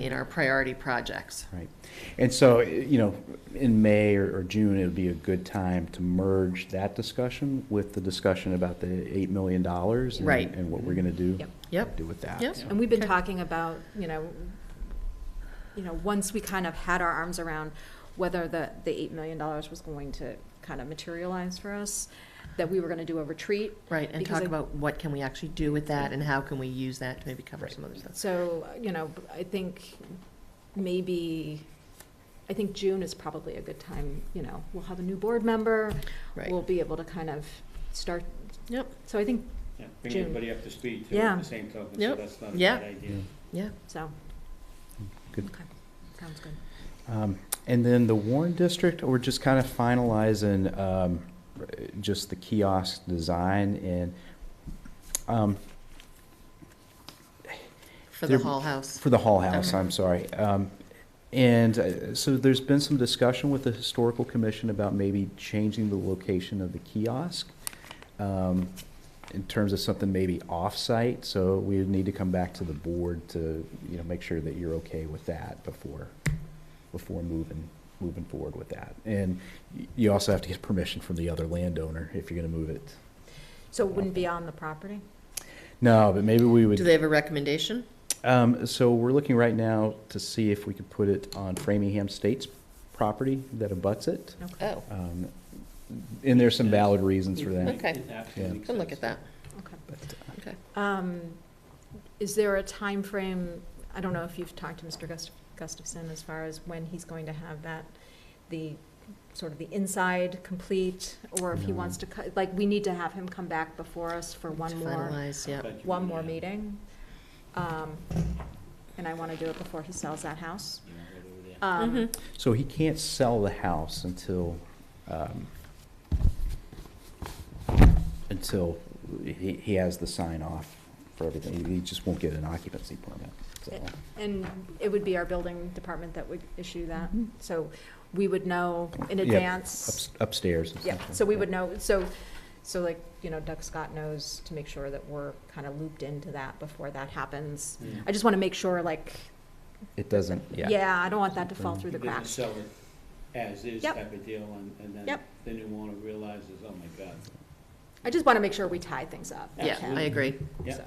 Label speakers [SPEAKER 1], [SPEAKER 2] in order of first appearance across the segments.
[SPEAKER 1] in our priority projects.
[SPEAKER 2] Right. And so, you know, in May or or June, it would be a good time to merge that discussion with the discussion about the $8 million. and-
[SPEAKER 1] Right.
[SPEAKER 2] And what we're going to do.
[SPEAKER 3] Yep.
[SPEAKER 1] Yep.
[SPEAKER 2] Do with that.
[SPEAKER 1] Yep.
[SPEAKER 2] So-
[SPEAKER 3] And we've been
[SPEAKER 1] Okay.
[SPEAKER 3] talking about, you know, you know, once we kind of had our arms around whether the, the eight million dollars was going to kind of materialize for us, that we were gonna do a retreat.
[SPEAKER 1] Right, and
[SPEAKER 3] Because
[SPEAKER 1] talk
[SPEAKER 3] I-
[SPEAKER 1] about what can we actually do with that and how can we use that to maybe cover some other stuff.
[SPEAKER 3] So, you know, I think maybe, I think June is probably a good time, you know, we'll have a new board member.
[SPEAKER 1] Right.
[SPEAKER 3] We'll be able to kind of start,
[SPEAKER 1] Yep,
[SPEAKER 3] so I think,
[SPEAKER 4] Yeah, Bring
[SPEAKER 3] June.
[SPEAKER 4] everybody up to speed too,
[SPEAKER 3] Yeah.
[SPEAKER 4] at the same token, so
[SPEAKER 1] Yep.
[SPEAKER 4] that's not a
[SPEAKER 1] Yeah.
[SPEAKER 4] bad idea.
[SPEAKER 1] yeah.
[SPEAKER 3] so.
[SPEAKER 2] Good.
[SPEAKER 3] Okay, Sounds good.
[SPEAKER 2] Um, And then the Warren District, we're just kind of finalizing um, r- just the kiosk design and um,
[SPEAKER 1] For the
[SPEAKER 2] There-
[SPEAKER 1] Hall House.
[SPEAKER 2] For the Hall House,
[SPEAKER 1] Okay.
[SPEAKER 2] I'm sorry. Um, And uh, so there's been some discussion with the Historical Commission about maybe changing the location of the kiosk um, in terms of something maybe off-site, so we need to come back to the board to, you know, make sure that you're okay with that before, before moving, moving forward with that. And y- you also have to get permission from the other landowner if you're gonna move it.
[SPEAKER 3] So it wouldn't be on the property?
[SPEAKER 2] No, but maybe we would.
[SPEAKER 1] Do they have a recommendation?
[SPEAKER 2] Um, so we're looking right now to see if we could put it on Framingham State's property that abuts it.
[SPEAKER 3] Okay,
[SPEAKER 1] Oh,
[SPEAKER 2] Um, and there's some valid reasons for that.
[SPEAKER 1] Okay.
[SPEAKER 4] It absolutely
[SPEAKER 2] Yeah.
[SPEAKER 4] makes
[SPEAKER 1] can look at
[SPEAKER 4] sense.
[SPEAKER 1] that,
[SPEAKER 3] okay.
[SPEAKER 2] But, uh,
[SPEAKER 1] okay.
[SPEAKER 3] Um, Is there a time frame? I don't know if you've talked to Mr. Gust- Gustafson as far as when he's going to have that, the, sort of the inside complete, or if he
[SPEAKER 2] No.
[SPEAKER 3] wants to, cut- like, we need to have him come back before us for one
[SPEAKER 1] To
[SPEAKER 3] more,
[SPEAKER 1] Finalize, yeah.
[SPEAKER 4] But you
[SPEAKER 3] one
[SPEAKER 4] would
[SPEAKER 3] more
[SPEAKER 4] have-
[SPEAKER 3] meeting. Um, And I want to do it before he sells that house.
[SPEAKER 4] you know, whether we're there.
[SPEAKER 3] Um,
[SPEAKER 1] Mhm.
[SPEAKER 2] uh, So he can't sell the house until, um, until he, he has the sign off for everything. He just won't get an occupancy permit, so.
[SPEAKER 3] And it would be our building department that would issue that, so we would know in
[SPEAKER 2] Yeah,
[SPEAKER 3] advance.
[SPEAKER 2] ups- Upstairs.
[SPEAKER 3] Yeah,
[SPEAKER 2] essentially.
[SPEAKER 3] so we would know, so, so like, you know, Doug Scott knows to make sure that we're kind of looped into that before that happens.
[SPEAKER 4] Yeah.
[SPEAKER 3] I just want to make sure, like,
[SPEAKER 2] It doesn't, yeah.
[SPEAKER 3] yeah, I don't want that to fall
[SPEAKER 2] Mm.
[SPEAKER 3] through the
[SPEAKER 4] It doesn't
[SPEAKER 3] cracks.
[SPEAKER 4] sell it as is
[SPEAKER 3] Yep.
[SPEAKER 4] type of deal, and, and then
[SPEAKER 3] Yep.
[SPEAKER 4] the new owner realizes, oh my God.
[SPEAKER 3] I just want to make sure we tie things up.
[SPEAKER 1] Yeah, I
[SPEAKER 4] Absolutely.
[SPEAKER 1] agree.
[SPEAKER 4] Yeah.
[SPEAKER 3] So,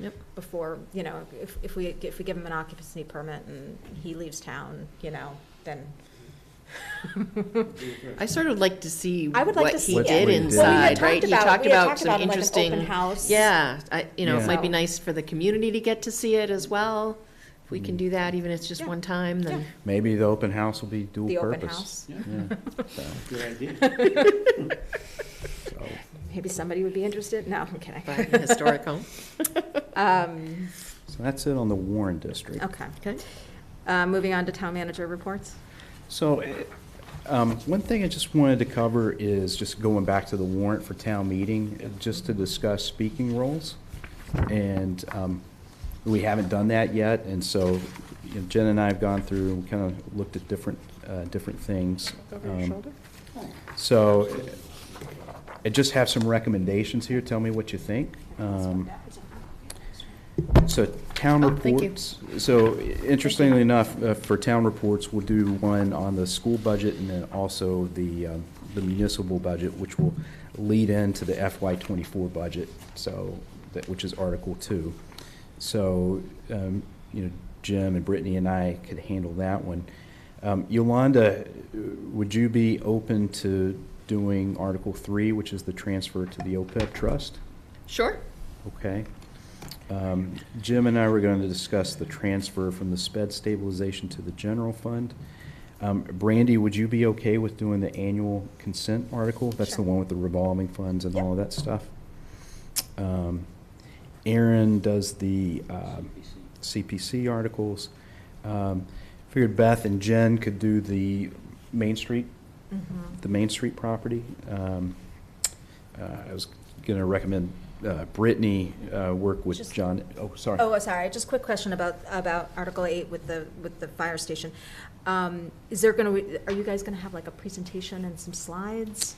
[SPEAKER 1] Yep.
[SPEAKER 3] Before, you know, if, if we, if we give him an occupancy permit and he leaves town, you know, then.
[SPEAKER 4] do it first.
[SPEAKER 1] I sort of like to see
[SPEAKER 3] I would like
[SPEAKER 1] what
[SPEAKER 3] to see
[SPEAKER 1] he
[SPEAKER 2] it.
[SPEAKER 1] did
[SPEAKER 2] What we did. Well, we had
[SPEAKER 1] inside, right? He talked about some
[SPEAKER 3] Like an open
[SPEAKER 1] interesting,
[SPEAKER 3] house.
[SPEAKER 1] yeah, I, you know, it might be
[SPEAKER 3] Yeah.
[SPEAKER 1] nice for the community to get to see it as well. If we can do that, even if it's just
[SPEAKER 3] Yeah.
[SPEAKER 1] one time, then,
[SPEAKER 2] Maybe the open house will be dual
[SPEAKER 3] The open
[SPEAKER 2] purpose.
[SPEAKER 3] house.
[SPEAKER 4] Yeah,
[SPEAKER 2] Yeah, so,
[SPEAKER 4] good idea.
[SPEAKER 2] so.
[SPEAKER 3] Maybe somebody would be interested. No, I'm kidding.
[SPEAKER 1] but historic home,
[SPEAKER 3] Um,
[SPEAKER 2] So that's it on the Warren District.
[SPEAKER 3] okay.
[SPEAKER 1] okay?
[SPEAKER 3] Uh, moving on to town manager reports.
[SPEAKER 2] So, eh, um, one thing I just wanted to cover is just going back to the warrant for town meeting, eh, just to discuss speaking roles. And, um, we haven't done that yet, and so you know, Jen and I have gone through, and kind of looked at different, uh, different things. Um, So, eh, I just have some recommendations here, tell me what you think. Um, So town
[SPEAKER 1] Oh, thank you.
[SPEAKER 2] reports, so interestingly enough, uh, for town reports, we'll do one on the school budget and then also the um, the municipal budget, which will lead into the FY twenty-four budget, so, that, which is Article Two. So, um, you know, Jim and Brittany and I could handle that one. Um, Yolanda, uh, would you be open to doing Article Three, which is the transfer to the OPEB trust?
[SPEAKER 1] Sure,
[SPEAKER 2] Okay. Um, Jim and I were going to discuss the transfer from the sped stabilization to the general fund. Um, Brandy, would you be okay with doing the annual consent article? That's the
[SPEAKER 3] Sure.
[SPEAKER 2] one with the revolving funds and all of
[SPEAKER 3] Yep.
[SPEAKER 2] that stuff. Um, Aaron does the um,
[SPEAKER 4] CPC.
[SPEAKER 2] CPC articles. Um, Figured Beth and Jen could do the Main Street the Main Street property. Um, uh, I was going to recommend uh, Brittany uh, work with
[SPEAKER 3] Just-
[SPEAKER 2] John, oh, sorry.
[SPEAKER 3] Oh, sorry, just quick question about, about Article 8 with the, with the fire station. Um, Is there going to, are you guys going to have like a presentation and some slides?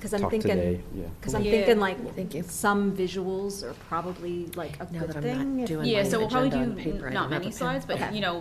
[SPEAKER 3] 'Cause I'm
[SPEAKER 2] talk
[SPEAKER 3] thinking-
[SPEAKER 2] today, yeah.
[SPEAKER 3] Because I'm
[SPEAKER 5] Yeah.
[SPEAKER 3] thinking like,
[SPEAKER 1] Thank you.
[SPEAKER 3] some visuals are probably like a
[SPEAKER 1] Now
[SPEAKER 3] good
[SPEAKER 1] that I'm not
[SPEAKER 3] thing. if-
[SPEAKER 1] doing
[SPEAKER 5] Yeah,
[SPEAKER 1] my
[SPEAKER 5] so we'll probably
[SPEAKER 1] agenda on
[SPEAKER 5] do
[SPEAKER 1] paper, I don't
[SPEAKER 5] n- not
[SPEAKER 1] have a
[SPEAKER 5] many
[SPEAKER 1] pen.
[SPEAKER 5] slides, but,
[SPEAKER 3] Okay.
[SPEAKER 5] you know,